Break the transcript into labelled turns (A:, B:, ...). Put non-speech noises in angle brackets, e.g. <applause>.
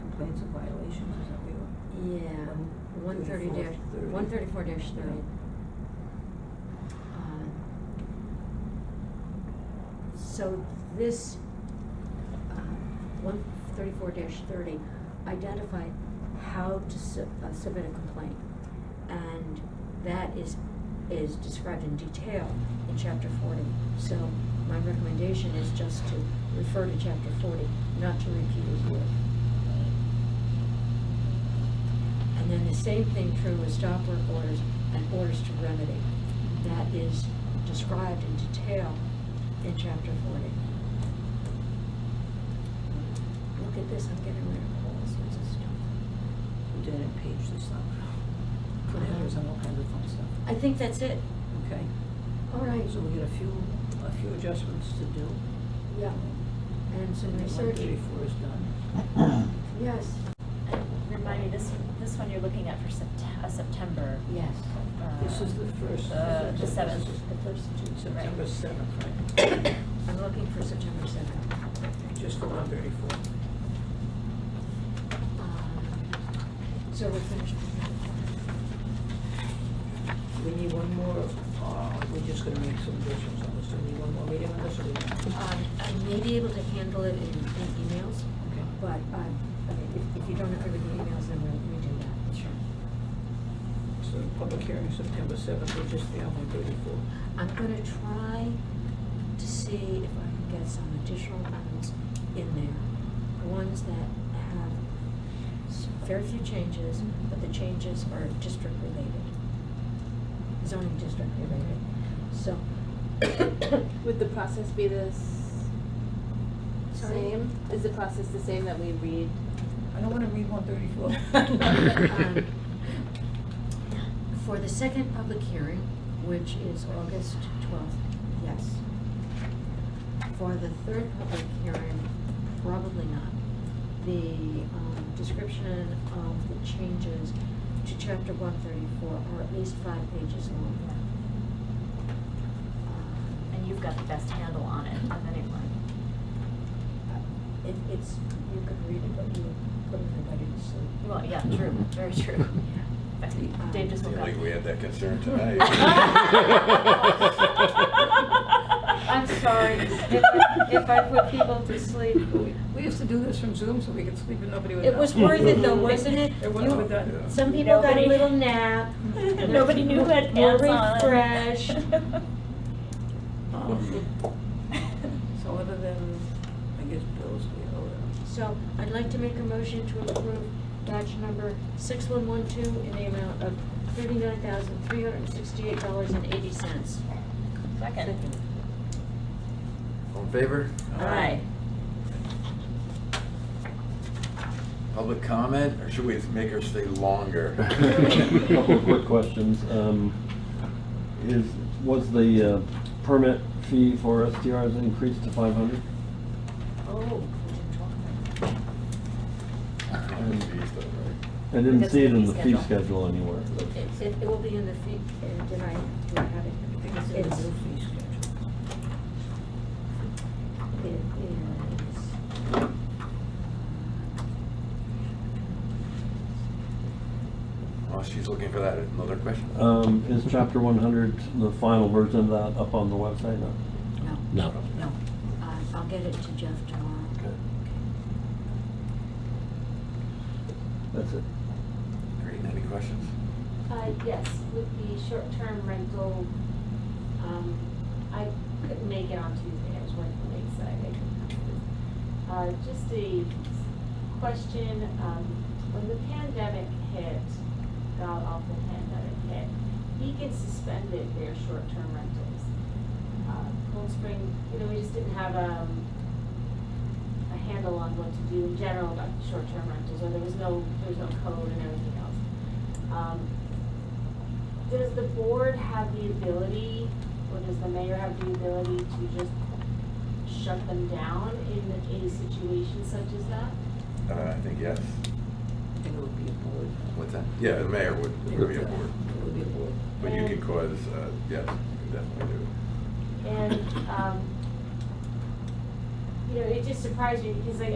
A: complaints of violations, is that what you?
B: Yeah, one thirty dash, one thirty-four dash thirty. Uh, So this, uh, one thirty-four dash thirty identified how to su- uh, submit a complaint. And that is, is described in detail in chapter forty. So my recommendation is just to refer to chapter forty, not to repeat it here. And then the same thing true with stop work orders and orders to remedy. That is described in detail in chapter forty. Look at this, I'm getting rid of all sorts of stuff.
A: We didn't page this up. Put
B: Uh-huh.
A: headers and all kinds of fun stuff,
B: I think that's it.
A: okay?
B: All right,
A: So we got a few, a few adjustments to do.
B: yeah, and some research,
A: One thirty-four is done.
B: yes,
C: And remind me, this, this one you're looking at for Sept- a September.
B: yes.
C: uh,
A: This is the first.
C: Uh, the seventh.
B: The first two,
A: September
C: Right.
A: seventh, right?
B: I'm looking for September seventh.
A: Just the one thirty-four.
B: Um, So we're finished with that.
A: We need one more, uh, we're just gonna make some additions on this, do we need one more meeting on this or? we-
B: Um, I may be able to handle it in, in emails.
A: Okay.
B: But, um, I mean, if, if you don't agree with the emails, then we'll redo that. Sure.
A: So public hearing September seventh, we're just the one thirty-four.
B: I'm gonna try to see if I can get some additional ones in there. Ones that have s- very few changes, but the changes are district related. Zoning district related, so.
D: Would the process be the s-
B: Sorry?
D: same? Is the process the same that we read?
A: I don't wanna read one
B: Um, <laughs>
A: thirty-four.
B: For the second public hearing, which is August twelfth, yes. For the third public hearing, probably not. The um, description of the changes to chapter one thirty-four are at least five pages long. Uh,
C: And you've got the best handle on it of anyone.
B: Uh, It, it's, you could read it, but you would put everybody to sleep.
C: Well, yeah, true, very true.
B: <laughs>
C: In fact, Dave just woke
E: Seemed
C: up.
E: like we had that
B: <laughs>
E: concern <laughs> tonight.
C: I'm sorry, if I, if I put people to sleep.
A: We used to do this from Zoom so we could sleep and nobody would know.
B: It was worth it though, wasn't it?
A: It was
B: You-
A: worth it.
E: Yeah.
B: Some people got a
C: Nobody-
B: little nap. <laughs>
C: <laughs> Nobody knew who had
B: More
C: pants on. <laughs>
B: refreshed. <laughs>
A: um, So other than, I guess bills, we owe them.
B: So I'd like to make a motion to approve batch number six one one two in the amount of thirty-nine thousand, three hundred and sixty-eight dollars and eighty cents.
C: Second.
E: All in favor?
C: Aye.
E: Public comment, or should we make her stay longer?
F: Couple of quick questions. Um, Is, was the uh, permit fee for STRs increased to 500?
B: Oh, we didn't talk about that.
E: Jeez, though, right?
F: I didn't
C: That's
F: see it
C: the
F: in
C: fee
F: the fee
C: schedule.
F: schedule anywhere.
B: It, it- it will be in the fee, uh, did I, do I have it?
A: I think it's in the new fee schedule.
B: It is.
E: While Oh, she's looking for that, another question?
F: Um, Is chapter 100, the final version of that, up on the website now?
B: No.
G: No.
B: No. Uh, I'll get it to Jeff tomorrow.
E: Okay.
F: That's it.
E: Great, any questions?
H: Uh, yes, with the short-term rental, um, I couldn't make it on Tuesday, I was working late, so I couldn't come. Uh, just a question, um, when the pandemic hit, God awful pandemic hit, Beacon suspended their short-term rentals. Uh, Cold Spring, you know, we just didn't have, um, a handle on what to do in general about short-term rentals, or there was no, there was no code and everything else. Um, Does the board have the ability, or does the mayor have the ability to just shut them down in a situation such as that?
E: Uh, I think yes.
A: I think it would be a board.
E: What's that? Yeah, the mayor would, would be aboard.
A: It would be a board.
E: But you can cause, uh, yes, you can definitely do it.
H: And, um, you know, it just surprised me, because like,